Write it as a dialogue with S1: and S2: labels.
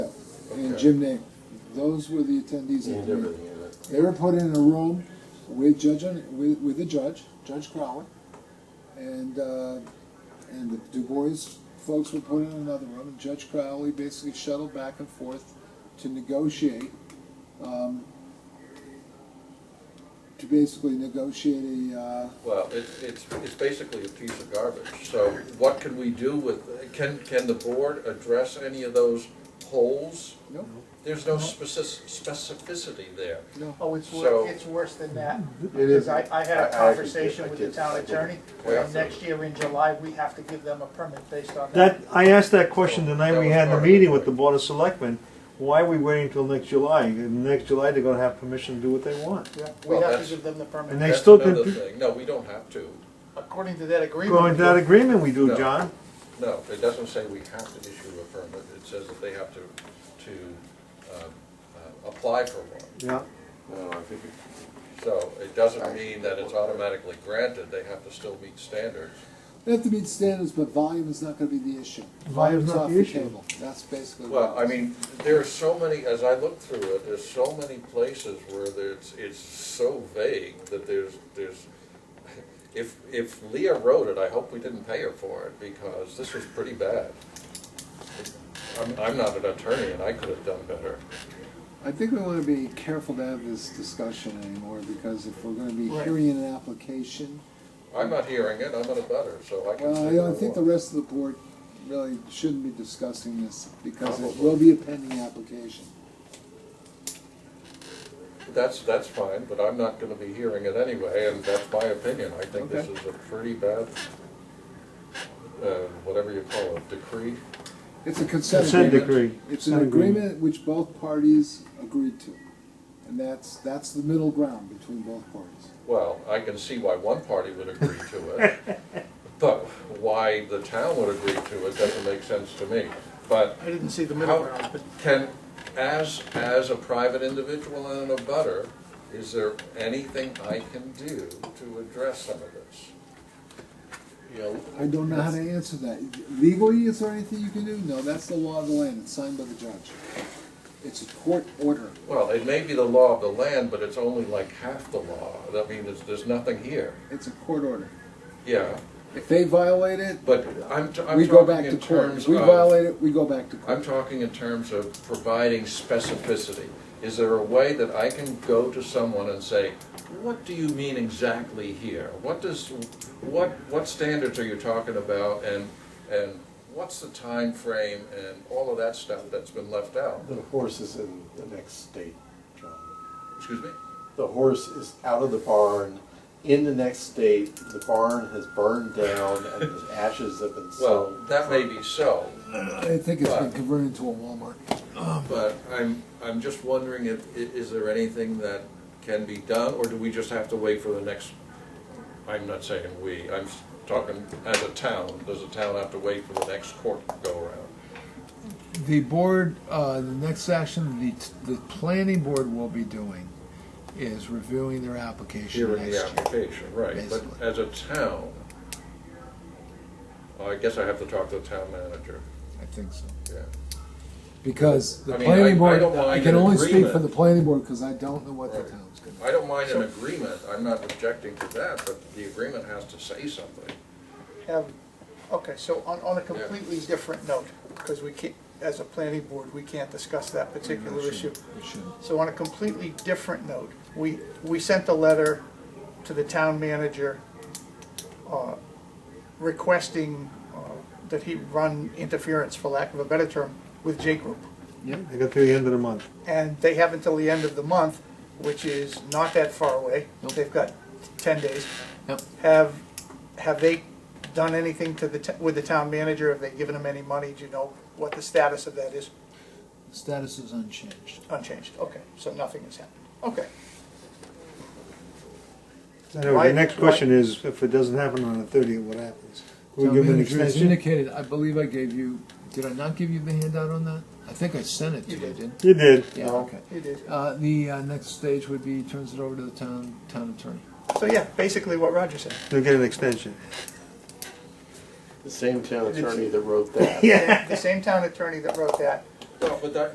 S1: and Jim Name. Those were the attendees at
S2: And
S1: the meeting.
S2: everything in it.
S1: They were put in a room with Judge, with, with the judge, Judge Crowley, and, uh, and the Du Bois folks were put in another room, and Judge Crowley basically shuttled back and forth to negotiate, um, to basically negotiate a, uh,
S3: Well, it, it's, it's basically a piece of garbage, so what can we do with, can, can the board address any of those holes?
S1: no,
S3: There's no specific, specificity there.
S1: no.
S4: Oh, it's
S3: So-
S4: wor, it's worse than that,
S2: It is.
S4: because I, I had
S2: I- I
S4: a
S2: did- I
S4: conversation with the
S2: did- I
S4: town
S2: did-
S4: attorney,
S3: Yeah.
S4: and next year in July, we have to give them a permit based on that.
S5: That, I asked that question the night
S3: That
S5: we
S3: was
S5: had the
S3: part of it.
S5: meeting with the Board of Selectmen. Why are we waiting till next July? And Next July, they're gonna have permission to do what they want.
S4: Yeah, We
S3: Well,
S4: have
S3: that's-
S4: to give them the permit.
S5: And they still
S3: That's another
S5: did-
S3: thing, no, we don't have to,
S4: According to that agreement.
S5: Going to that agreement we do,
S3: No.
S5: John.
S3: no, it doesn't say we have to issue a permit, it says that they have to, to, um, uh, apply for one.
S5: Yeah,
S2: No, I think it-
S3: So it doesn't mean that it's automatically granted, they have to still meet standards.
S1: They have to meet standards, but volume is not gonna be the issue.
S5: Volume's not
S1: off
S5: the issue.
S1: table. That's basically. what
S3: Well,
S1: it
S3: I
S1: is.
S3: mean, there are so many, as I look through it, there's so many places where there's, it's so vague that there's, there's, if, if Leah wrote it, I hope we didn't pay her for it, because this was pretty bad. I'm, I'm not an attorney, and I could have done better.
S1: I think we wanna be careful to have this discussion anymore, because if we're gonna be
S4: Right.
S1: hearing an application,
S3: I'm not hearing it, I'm an abutter, so I can say
S1: well,
S3: what
S1: I don't think the
S3: want.
S1: rest of the board really shouldn't be discussing this, because it will be a pending application.
S3: That's, that's fine, but I'm not gonna be hearing it anyway, and that's my opinion. I think this is a pretty bad, uh, whatever you call it, decree.
S1: It's a consent
S5: consent
S1: agreement.
S5: decree.
S1: It's an
S5: Consent
S1: agreement which both parties agreed to, and that's, that's the middle ground between both parties.
S3: Well, I can see why one party would agree to it, but why the town would agree to it doesn't make sense to me. But
S4: I didn't see the middle ground,
S3: how
S4: but
S3: can, as, as a private individual and a butter, is there anything I can do to address some of this? You know,
S1: I don't know how to answer that. Legally, is there anything you can do? No, that's the law of the land. It's signed by the judge. It's a court order.
S3: Well, it may be the law of the land, but it's only like half the law. I mean, there's, there's nothing here.
S1: It's a court order.
S3: Yeah,
S1: If they violate it,
S3: but I'm, t- I'm
S1: we go back to
S3: talking in
S1: court. If
S3: terms
S1: we
S3: of,
S1: violate it, we go back to court.
S3: I'm talking in terms of providing specificity. Is there a way that I can go to someone and say, what do you mean exactly here? What does, what, what standards are you talking about and, and what's the time frame and all of that stuff that's been left out?
S2: The horse is in the next state, John.
S3: Excuse me?
S2: The horse is out of the barn, in the next state, the barn has burned down and the ashes have been
S3: Well,
S2: sown.
S3: that may be so,
S1: I think it's been converted into a Walmart.
S3: But I'm, I'm just wondering if, i- is there anything that can be done, or do we just have to wait for the next? I'm not saying we, I'm s- talking as a town, does the town have to wait for the next court go around?
S1: The board, uh, the next action, the, the planning board will be doing is reviewing their application
S3: Hearing the application, right, but
S1: basically.
S3: as a town, I guess I have to talk to the town manager,
S1: I think so.
S3: yeah.
S1: Because the
S3: I mean,
S1: planning
S3: I- I
S1: board,
S3: don't
S1: I
S3: mind
S1: can
S3: an
S1: only speak for
S3: agreement.
S1: the planning board because I don't know what the
S3: Right.
S1: town's gonna do.
S3: I don't mind an agreement, I'm not objecting to that, but the agreement has to say something.
S4: have, okay, so on, on a completely different note, because we can't, as a planning board, we can't discuss that particular
S2: Mm-hmm.
S4: issue.
S1: It shouldn't.
S4: So on a completely different note, we, we sent a letter to the town manager uh, requesting uh, that he run interference, for lack of a better term, with J Group.
S5: They got to the end of the month.
S4: And they have until the end of the month, which is not that far away.
S1: Nope.
S4: They've got ten days.
S1: Yep.
S4: Have, have they done anything to the, t- with the town manager? Have they given him any money? Do you know what the status of that is?
S1: Status is unchanged.
S4: Unchanged, okay, so nothing has happened, okay.
S5: Anyway, the
S4: Why-
S5: next
S4: why-
S5: question is, if it doesn't happen on the thirtieth, what happens? Can
S1: Town
S5: we give them an
S1: manager, as
S5: extension?
S1: indicated, I believe I gave you, did I not give you the handout on that? I think I sent it to
S4: You
S1: you,
S4: did.
S1: didn't?
S5: You did.
S1: Yeah, okay.
S4: It is.
S1: Uh, the, uh, next stage would be turns it over to the town, town attorney.
S4: So yeah, basically what Roger said.
S5: They'll get an extension.
S2: The same town attorney that wrote that.
S4: The same town attorney that wrote that
S3: Well, but that,